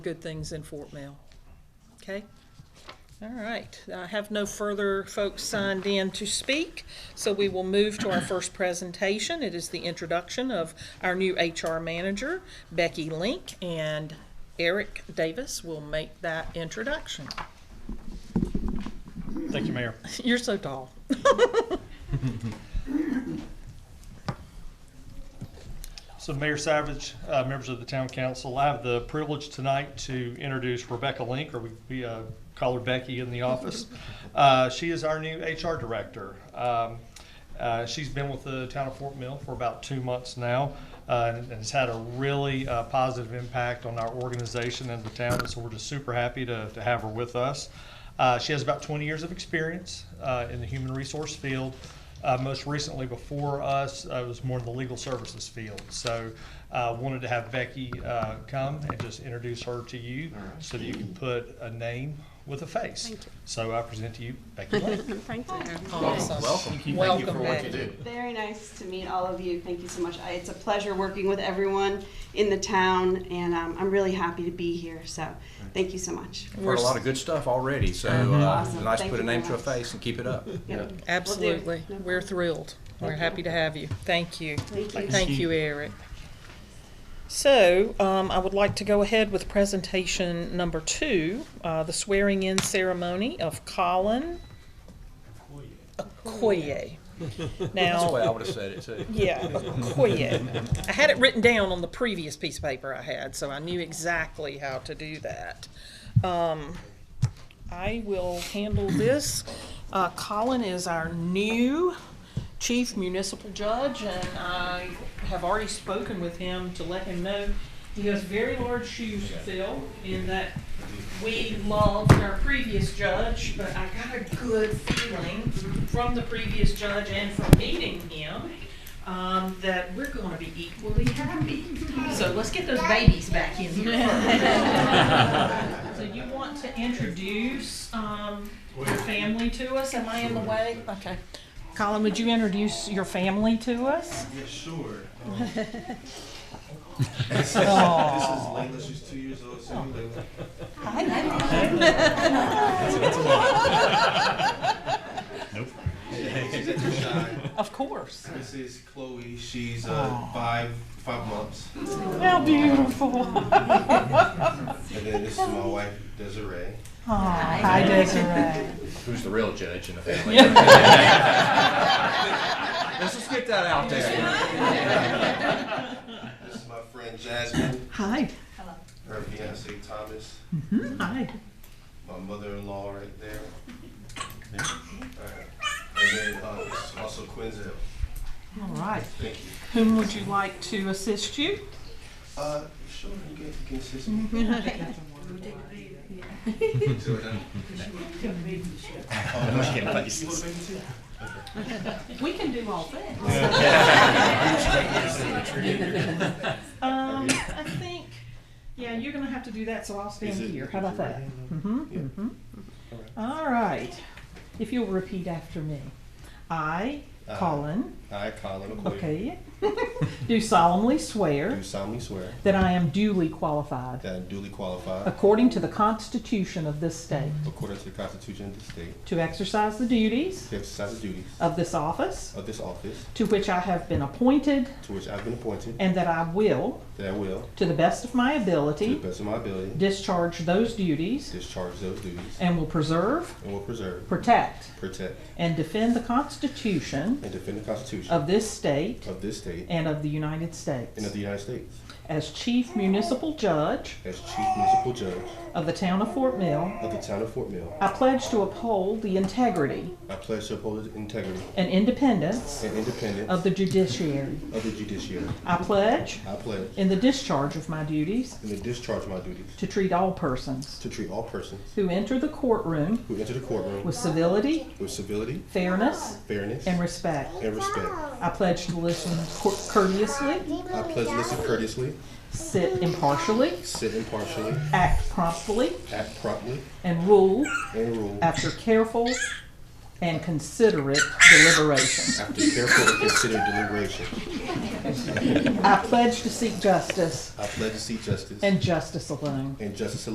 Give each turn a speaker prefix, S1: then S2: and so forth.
S1: good things in Fort Mill. Okay? All right. I have no further folks signed in to speak, so we will move to our first presentation. It is the introduction of our new HR manager, Becky Link, and Eric Davis will make that introduction.
S2: Thank you, Mayor.
S1: You're so tall.
S2: So Mayor Savage, uh, members of the town council, I have the privilege tonight to introduce Rebecca Link, or we- we uh, call her Becky in the office. Uh, She is our new HR director. Um, uh, She's been with the town of Fort Mill for about two months now, uh, and has had a really uh, positive impact on our organization and the town, and so we're just super happy to to have her with us. Uh, She has about 20 years of experience uh, in the human resource field, Uh, most recently before us, uh, was more in the legal services field. So uh, wanted to have Becky uh, come and just introduce her to you so that you can put a name with a face.
S3: Thank you.
S2: So I present to you Becky Lake.
S3: Thank you.
S1: Awesome.
S4: Welcome.
S1: Welcome,
S4: Thank you for what
S1: Becky.
S4: you do.
S3: Very nice to meet all of you. Thank you so much. I- It's a pleasure working with everyone in the town, and um, I'm really happy to be here, so thank you so much.
S4: I've Heard a lot of good stuff already, so uh,
S3: Mm-hmm. Awesome.
S4: nice to
S3: Thank
S4: put a
S3: you
S4: name to
S3: very
S4: a
S3: much.
S4: face and keep it up.
S3: Yep.
S1: Absolutely.
S3: Will do.
S1: We're thrilled. We're happy to have you. Thank you.
S3: Thank you.
S1: Thank you, Eric. So, um, I would like to go ahead with presentation number two, uh, the swearing-in ceremony of Colin Okoye.
S4: That's the way I
S1: Now,
S4: would have said it too.
S1: yeah, Okoye. I had it written down on the previous piece of paper I had, so I knew exactly how to do that. Um, I will handle this. Uh, Colin is our new chief municipal judge, and I have already spoken with him to let him know he has very large shoes to fill in that we loved our previous judge, but I got a good feeling from the previous judge and from meeting him um, that we're going to be equally happy. So let's get those babies back in here. first. so you want to introduce um, your family to us? Am I in the way? Okay. Colin, would you introduce your family to us?
S5: Yeah, sure. Um,
S1: Oh,
S5: Layla, she's two years old. So I'm Layla. She's extra shy.
S1: of course.
S5: This is Chloe. She's uh, five five months.
S1: How beautiful.
S5: And then this is my wife, Desiree.
S1: hi, Desiree.
S4: Who's the real judge in the family? Let's just get that out there.
S5: This is my friend Jasmine,
S1: Hi.
S5: her fiance Thomas,
S1: Hi.
S5: my mother-in-law right there. Alright. And then uh, this is also Quinzel.
S1: All right.
S5: Thank you.
S1: Whom would you like to assist you?
S5: Uh, sure, you can, you can assist me. So, uh, Oh, no, you want a baby too?
S1: We can do all things. Um, I think, yeah, you're gonna have to do that, so I'll stand
S5: Is it-
S1: here. How about that? Mm-hmm,
S5: Yeah.
S1: mm-hmm. All right. If you'll repeat after me. I,
S5: Uh,
S1: Colin,
S5: I, Colin McCoy.
S1: okay, do solemnly swear
S5: Do solemnly swear
S1: that I am duly qualified,
S5: that I am duly qualified,
S1: according to the Constitution of this state,
S5: according to the Constitution of the state,
S1: to exercise the duties
S5: to exercise the duties
S1: of this office
S5: of this office
S1: to which I have been appointed,
S5: to which I've been appointed,
S1: and that I will,
S5: that I will,
S1: to the best of my
S5: to the
S1: ability,
S5: best of my ability,
S1: discharge those duties
S5: discharge those duties,
S1: and will preserve,
S5: and will preserve,
S1: protect,
S5: protect,
S1: and defend the Constitution
S5: and defend the Constitution
S1: of this state
S5: of this state
S1: and of the United
S5: and
S1: States.
S5: of the United States.
S1: As Chief Municipal Judge
S5: As Chief Municipal Judge
S1: of the town of Fort Mill,
S5: of the town of Fort Mill,
S1: I pledge to uphold the integrity
S5: I pledge to uphold the integrity
S1: and independence
S5: and independence
S1: of
S5: of
S1: the judiciary.
S5: the judiciary.
S1: I pledge,
S5: I pledge,
S1: in the discharge of my duties,
S5: in the discharge of my duties,
S1: to treat all persons
S5: to treat all persons
S1: who enter the courtroom
S5: who enter the courtroom
S1: with civility,
S5: with civility,
S1: fairness,
S5: fairness,
S1: and respect.
S5: and respect.
S1: I pledge to listen cour- courteously,
S5: I pledge to listen courteously,
S1: sit impartially,
S5: sit impartially,
S1: act promptly,
S5: act promptly,
S1: and rule
S5: and rule
S1: after careful and considerate deliberation.
S5: After careful and considered deliberation,
S1: I pledge to seek justice
S5: I pledge to seek justice
S1: and justice alone.
S5: and justice